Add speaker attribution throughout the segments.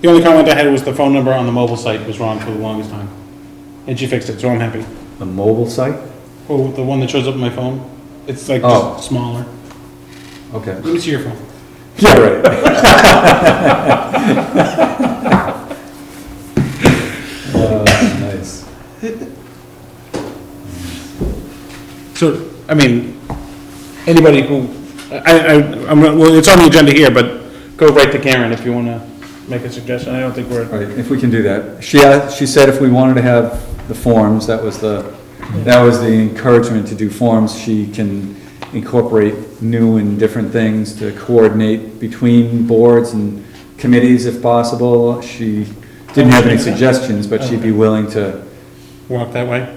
Speaker 1: The only comment I had was the phone number on the mobile site was wrong for the longest time. And she fixed it, so I'm happy.
Speaker 2: A mobile site?
Speaker 1: Oh, the one that shows up on my phone, it's like
Speaker 2: Oh.
Speaker 1: just smaller.
Speaker 2: Okay.
Speaker 1: Let me see your phone.
Speaker 2: Yeah, right. Uh, Nice.
Speaker 1: So, I mean, anybody who, I, I, I'm, not- well, it's on the agenda here, but go right to Karen if you wanna make a suggestion. I don't think
Speaker 2: All
Speaker 1: we're,
Speaker 2: right, if we can do that. She, a- she said if we wanted to have the forms, that was the, that was the encouragement to do forms. She can incorporate new and different things to coordinate between boards and committees if possible. She didn't have any suggestions, but she'd be willing to
Speaker 1: walk that way.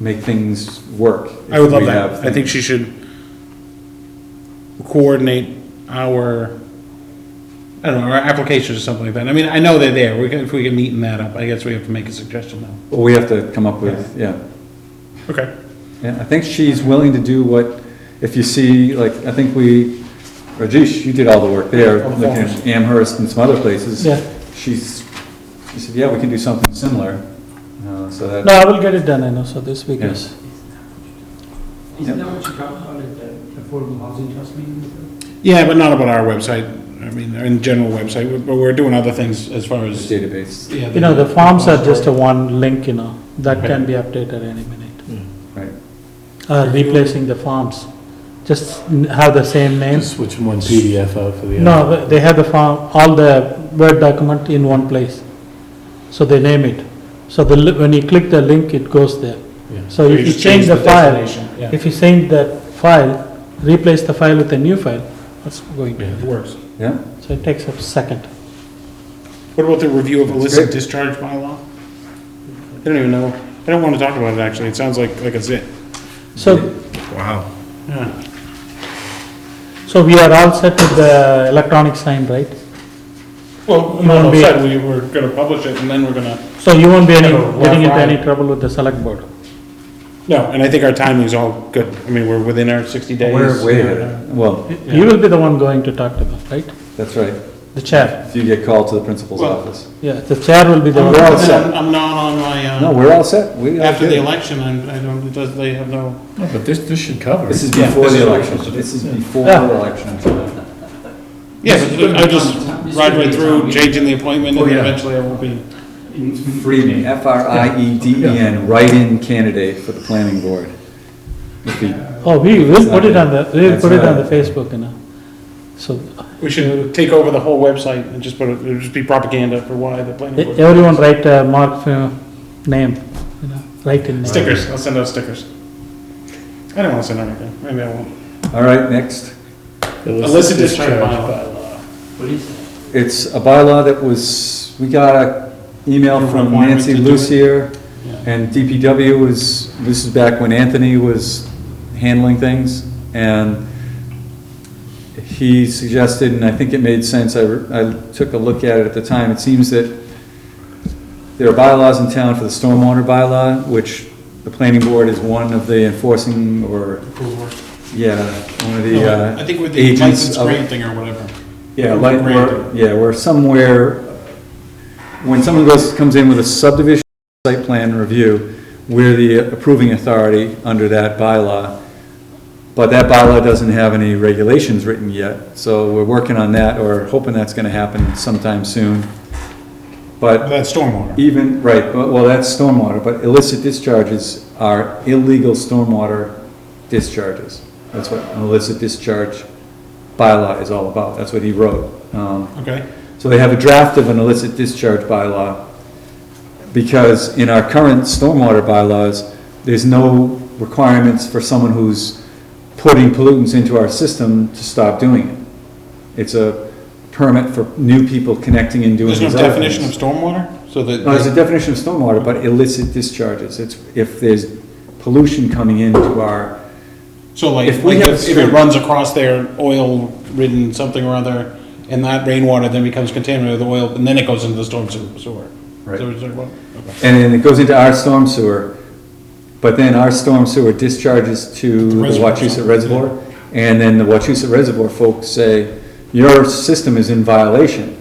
Speaker 2: make things work. if
Speaker 1: I would love
Speaker 2: we
Speaker 1: that.
Speaker 2: have
Speaker 1: I think she should coordinate our, I don't know, our applications or something like that. I mean, I know they're there. We can, if we can neaten that up, I guess we have to make a suggestion now.
Speaker 2: Well, we have to come up with, yeah.
Speaker 1: Okay.
Speaker 2: Yeah, I think she's willing to do what, if you see, like, I think we, Rajesh, you did all the work there,
Speaker 1: All the
Speaker 2: looking at
Speaker 1: forms.
Speaker 2: Amherst and some other places.
Speaker 3: Yeah.
Speaker 2: She's, she said, yeah, we can do something similar, uh, so that.
Speaker 3: No, I will get it done, I know, so this week is.
Speaker 4: Isn't that what you talked about at the Affordable Housing Trust meeting?
Speaker 1: Yeah, but not about our website. I mean, in general website, We- but we're doing other things as far as.
Speaker 2: Database,
Speaker 1: yeah,
Speaker 3: You know, the forms are just a one link, you know, that can be updated any minute.
Speaker 2: right,
Speaker 3: Uh, replacing the forms, just n- have the same name.
Speaker 5: Just switching one PDF out for the other.
Speaker 3: No, they have the form, all the Word document in one place. So they name it. So the, li- when you click the link, it goes there.
Speaker 5: Yeah.
Speaker 3: So if you
Speaker 1: just
Speaker 3: change the file,
Speaker 1: destination, yeah.
Speaker 3: if you change that file, replace the file with a new file, that's going
Speaker 1: It
Speaker 3: to,
Speaker 1: works.
Speaker 2: yeah,
Speaker 3: so it takes a second.
Speaker 1: What about the review of illicit
Speaker 2: great.
Speaker 1: discharge bylaw? They don't even know, they don't want to talk about it, actually. It sounds like, like a zit.
Speaker 3: So
Speaker 1: Wow. Yeah,
Speaker 3: So we are all set with the electronic sign, right?
Speaker 1: well,
Speaker 3: no,
Speaker 1: no,
Speaker 3: no,
Speaker 1: we
Speaker 3: said
Speaker 1: we were gonna publish it and then we're gonna,
Speaker 3: So you won't be any,
Speaker 1: No,
Speaker 3: getting into
Speaker 1: Friday.
Speaker 3: any trouble with the select board?
Speaker 1: no, and I think our timing is all good. I mean, we're within our sixty days.
Speaker 2: we're way ahead, of- well,
Speaker 3: You will be the one going to talk to them, right?
Speaker 2: that's right,
Speaker 3: The chair,
Speaker 2: if you get called to the principal's
Speaker 1: Well-
Speaker 2: office.
Speaker 3: yeah, the chair will be the
Speaker 1: I'm
Speaker 3: one.
Speaker 2: all set.
Speaker 1: I'm not on my,
Speaker 2: No,
Speaker 1: uh,
Speaker 2: we're all set, we, are
Speaker 1: after the
Speaker 2: good.
Speaker 1: election, I'm- I don't, it does, they have no.
Speaker 5: No, But this, this should cover
Speaker 2: this
Speaker 5: it.
Speaker 2: is
Speaker 1: Yeah,
Speaker 2: before
Speaker 1: this
Speaker 2: the
Speaker 1: is what we're
Speaker 2: election,
Speaker 1: supposed to do.
Speaker 2: this is before
Speaker 3: Yeah.
Speaker 2: the election.
Speaker 1: Yeah, but I just ride right through, changing the appointment, and
Speaker 5: Oh, yeah.
Speaker 1: eventually I will be.
Speaker 2: Hm. Frieden, E F-R-I-E-D-E-N, write-in candidate for the planning board. If he-
Speaker 3: Oh, we will put it on the, we'll
Speaker 2: That's
Speaker 3: put it on the
Speaker 2: right.
Speaker 3: Facebook, you know. So
Speaker 1: We should take over the whole website and just put it, it'd just be propaganda for why the planning
Speaker 3: e-
Speaker 1: board.
Speaker 3: everyone write a mark for name, you know, write in. name.
Speaker 1: Stickers, I'll send out stickers. I don't wanna send out anything, maybe I won't.
Speaker 2: All right, next.
Speaker 1: Illicit discharge bylaw.
Speaker 4: What is that?
Speaker 2: It's a bylaw that was, we got a email from
Speaker 1: Requirement
Speaker 2: Nancy
Speaker 1: to do it?
Speaker 2: Lucier,
Speaker 1: Yeah.
Speaker 2: and DPW was, this is back when Anthony was handling things, and he suggested, and I think it made sense, I, re- I took a look at it at the time, it seems that there are bylaws in town for the stormwater bylaw, which the planning board is one of the enforcing, or, yeah, one of the uh,
Speaker 1: I think with the
Speaker 2: agents
Speaker 1: license
Speaker 2: of.
Speaker 1: granting or whatever.
Speaker 2: Yeah,
Speaker 1: Or
Speaker 2: like, we're,
Speaker 1: granted.
Speaker 2: yeah, we're somewhere, when someone goes, comes in with a subdivision site plan review, we're the approving authority under that bylaw. But that bylaw doesn't have any regulations written yet, so we're working on that, or hoping that's gonna happen sometime soon. But
Speaker 1: That's stormwater.
Speaker 2: even, right, but, well, that's stormwater, but illicit discharges are illegal stormwater discharges. That's what an illicit discharge bylaw is all about, that's what he wrote. Um,
Speaker 1: Okay,
Speaker 2: so they have a draft of an illicit discharge bylaw, because in our current stormwater bylaws, there's no requirements for someone who's putting pollutants into our system to stop doing it. It's a permit for new people connecting and doing
Speaker 1: there's
Speaker 2: these
Speaker 1: no
Speaker 2: other
Speaker 1: definition of
Speaker 2: things.
Speaker 1: stormwater, so that.
Speaker 2: No, there's a definition of stormwater, but illicit discharges, it's if there's pollution coming into our,
Speaker 1: So like,
Speaker 2: If we
Speaker 1: like
Speaker 2: have
Speaker 1: if
Speaker 2: a
Speaker 1: if it
Speaker 2: stream-
Speaker 1: runs across their oil-ridden something or other, and that rainwater then becomes contaminated with oil, and then it goes into the storm sewer- sewer.
Speaker 2: Right.
Speaker 1: So it's like, well, okay.
Speaker 2: and then it goes into our storm sewer, but then our storm sewer discharges to the
Speaker 1: Reservoir.
Speaker 2: Wachusett Reservoir, and then the Wachusett Reservoir folks say, your system is in violation.